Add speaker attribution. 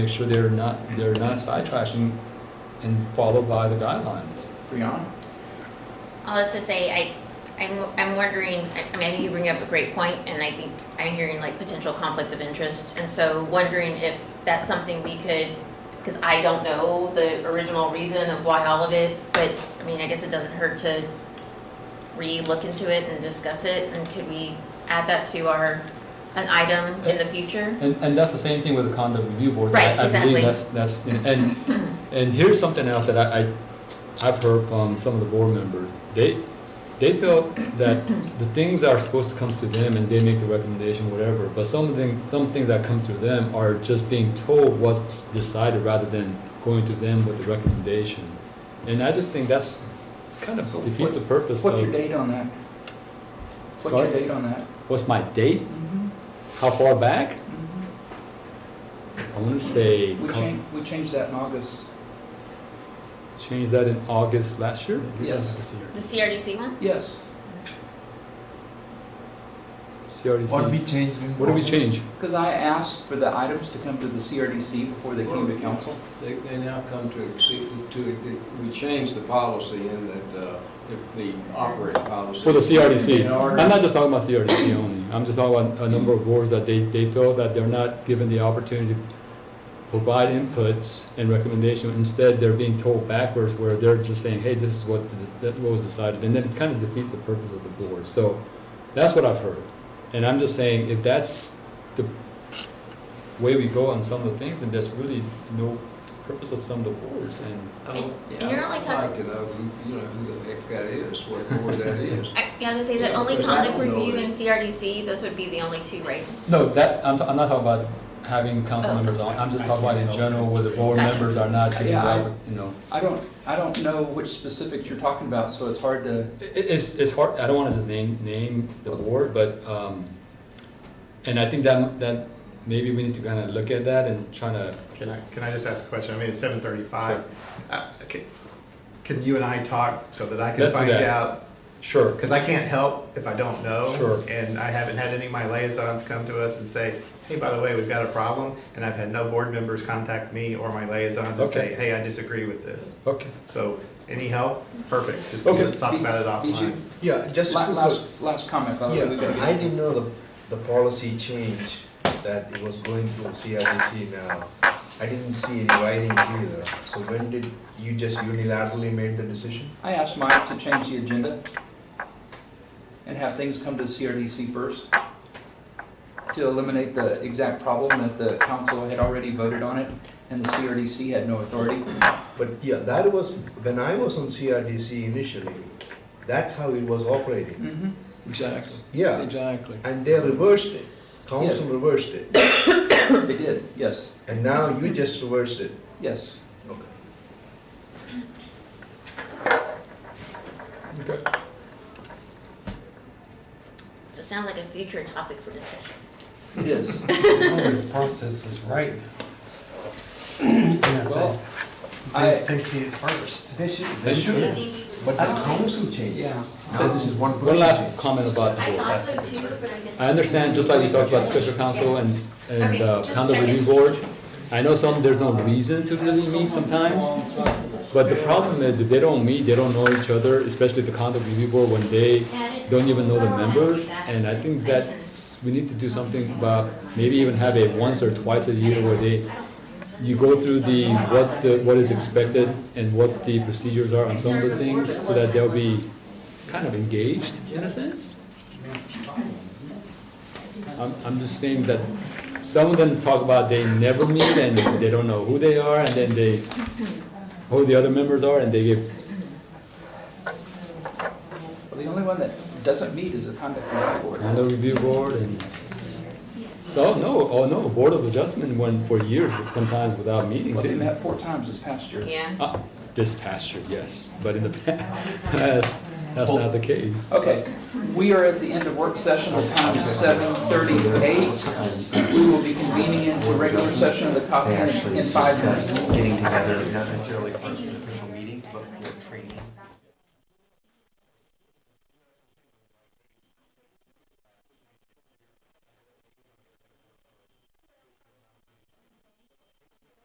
Speaker 1: make sure they're not, they're not sidetracking and followed by the guidelines.
Speaker 2: Brianna?
Speaker 3: All this to say, I, I'm, I'm wondering, I I mean, I think you bring up a great point, and I think I'm hearing like potential conflict of interest, and so wondering if that's something we could, because I don't know the original reason of why all of it, but, I mean, I guess it doesn't hurt to re-look into it and discuss it, and could we add that to our, an item in the future?
Speaker 1: And, and that's the same thing with the conduct review board.
Speaker 3: Right,
Speaker 1: I- I
Speaker 3: exactly.
Speaker 1: believe that's, that's, and, and here's something else that I, I, I've heard from some of the board members. They, they feel that the things that are supposed to come to them and they make the recommendation, whatever, but some of them, some things that come to them are just being told what's decided rather than going to them with the recommendation. And I just think that's kind of
Speaker 2: So
Speaker 1: defeats
Speaker 2: what-
Speaker 1: the purpose
Speaker 2: What's your
Speaker 1: of,
Speaker 2: date on that? What's your
Speaker 1: Sorry?
Speaker 2: date on that?
Speaker 1: what's my date?
Speaker 4: Mm-hmm.
Speaker 1: How far back? I wanna say.
Speaker 2: Mm-hmm. We
Speaker 1: come-
Speaker 2: changed, we changed that in August.
Speaker 1: Changed that in August last year?
Speaker 2: Yes.
Speaker 3: The CRDC one?
Speaker 2: Yes,
Speaker 1: CRDC.
Speaker 4: What we changed in.
Speaker 1: E What did we
Speaker 4: process?
Speaker 1: change?
Speaker 2: because I asked for the items to come to the CRDC before they came to council.
Speaker 5: They, they now come to exceed, to, we changed the policy in that, uh, the- the operating policy.
Speaker 1: For the CRDC.
Speaker 5: In
Speaker 1: I'm
Speaker 5: order-
Speaker 1: not just talking about CRDC only. I'm just talking about a number of boards that they, they feel that they're not given the opportunity to provide inputs and recommendation. Instead, they're being told backwards where they're just saying, hey, this is what, the- that was decided. And then it kind of defeats the purpose of the board. So that's what I've heard. And I'm just saying, if that's the way we go on some of the things, then there's really no purpose of some of the boards. And
Speaker 5: I don't-
Speaker 3: And you're only
Speaker 5: I'd like
Speaker 3: talking-
Speaker 5: to know who, you know, who the heck that is, what board that is.
Speaker 3: I, yeah, I was gonna say that
Speaker 5: Yeah,
Speaker 3: only
Speaker 5: because I
Speaker 3: conduct
Speaker 5: don't know
Speaker 3: review
Speaker 5: it.
Speaker 3: and CRDC, those would be the only two, right?
Speaker 1: No, that, I'm, I'm not talking about having council
Speaker 3: Oh.
Speaker 1: members on, I'm just talking about in general where the board
Speaker 3: Gotcha.
Speaker 1: members are not taking,
Speaker 2: Yeah, I-
Speaker 1: the oppor- you know.
Speaker 2: I don't, I don't know which specifics you're talking about, so it's hard to,
Speaker 1: It, it's, it's hard, I don't wanna just name, name the board, but, um, and I think that, that maybe we need to kinda look at that and try to,
Speaker 6: Can I, can I just ask a question? I mean, it's seven thirty-five. Uh, Can you and I talk so that I can
Speaker 1: Let's do
Speaker 6: find
Speaker 1: that.
Speaker 6: out?
Speaker 1: sure.
Speaker 6: Because I can't help if I don't know.
Speaker 1: Sure.
Speaker 6: And I haven't had any of my liaisons come to us and say, hey, by the way, we've got a problem. And I've had no board members contact me or my liaisons and
Speaker 1: Okay.
Speaker 6: say, hey, I disagree with this.
Speaker 1: Okay,
Speaker 6: So any help? Perfect. Just
Speaker 1: Okay.
Speaker 6: let's talk about it
Speaker 2: Did you-
Speaker 6: offline.
Speaker 4: Yeah, just.
Speaker 2: La-
Speaker 4: quick-
Speaker 2: last, last comment, by the way. we gotta
Speaker 4: Yeah,
Speaker 2: get-
Speaker 4: I didn't know the, the policy change that it was going through CRDC now. I didn't see any writings either. So when did, you just unilaterally made the decision?
Speaker 2: I asked Mike to change the agenda and have things come to the CRDC first to eliminate the exact problem that the council had already voted on it and the CRDC had no authority.
Speaker 4: But yeah, that was, when I was on CRDC initially, that's how it was operating.
Speaker 5: Exactly,
Speaker 4: Yeah,
Speaker 5: exactly.
Speaker 4: and they reversed it. Council reversed it.
Speaker 2: They did, yes,
Speaker 4: And now you just reversed it.
Speaker 2: yes.
Speaker 4: Okay.
Speaker 1: okay.
Speaker 3: So it sounds like a future topic for discussion.
Speaker 2: It is.
Speaker 7: As long as the process is right. And I
Speaker 2: Well,
Speaker 7: think
Speaker 2: I,
Speaker 7: they, they see it first.
Speaker 4: They should,
Speaker 1: They should.
Speaker 4: But the council changed.
Speaker 7: Yeah.
Speaker 4: Now this is one.
Speaker 1: One last
Speaker 4: person.
Speaker 1: comment about the board.
Speaker 3: so too, but I didn't.
Speaker 1: I understand, just like we talked about special counsel and, and
Speaker 3: Okay,
Speaker 1: uh,
Speaker 3: just
Speaker 1: condo
Speaker 3: check it.
Speaker 1: review board, I know some, there's no reason to really meet sometimes, but the problem is if they don't meet, they don't know each other, especially the condo review board when they don't even know the members, and I think that's, we need to do something about, maybe even have a once or twice a year where they, you go through the, what the, what is expected and what the procedures are on some of the things, so that they'll be kind of engaged in a sense. I'm, I'm just saying that some of them talk about they never meet and they don't know who they are, and then they, who the other members are, and they give,
Speaker 2: well, the only one that doesn't meet is the conduct review board.
Speaker 1: condo review board and. So, no, oh no, Board of Adjustment went for years, sometimes without meeting
Speaker 2: Well, they
Speaker 1: too.
Speaker 2: met four times this past year.
Speaker 3: Yeah.
Speaker 1: Uh, This past year, yes, but in the past, that's, that's not the case.
Speaker 2: Okay, we are at the end of work session, the time is seven thirty-eight. We will be convening into regular session of the Coffee House in five minutes.
Speaker 8: getting together, not necessarily for an official meeting.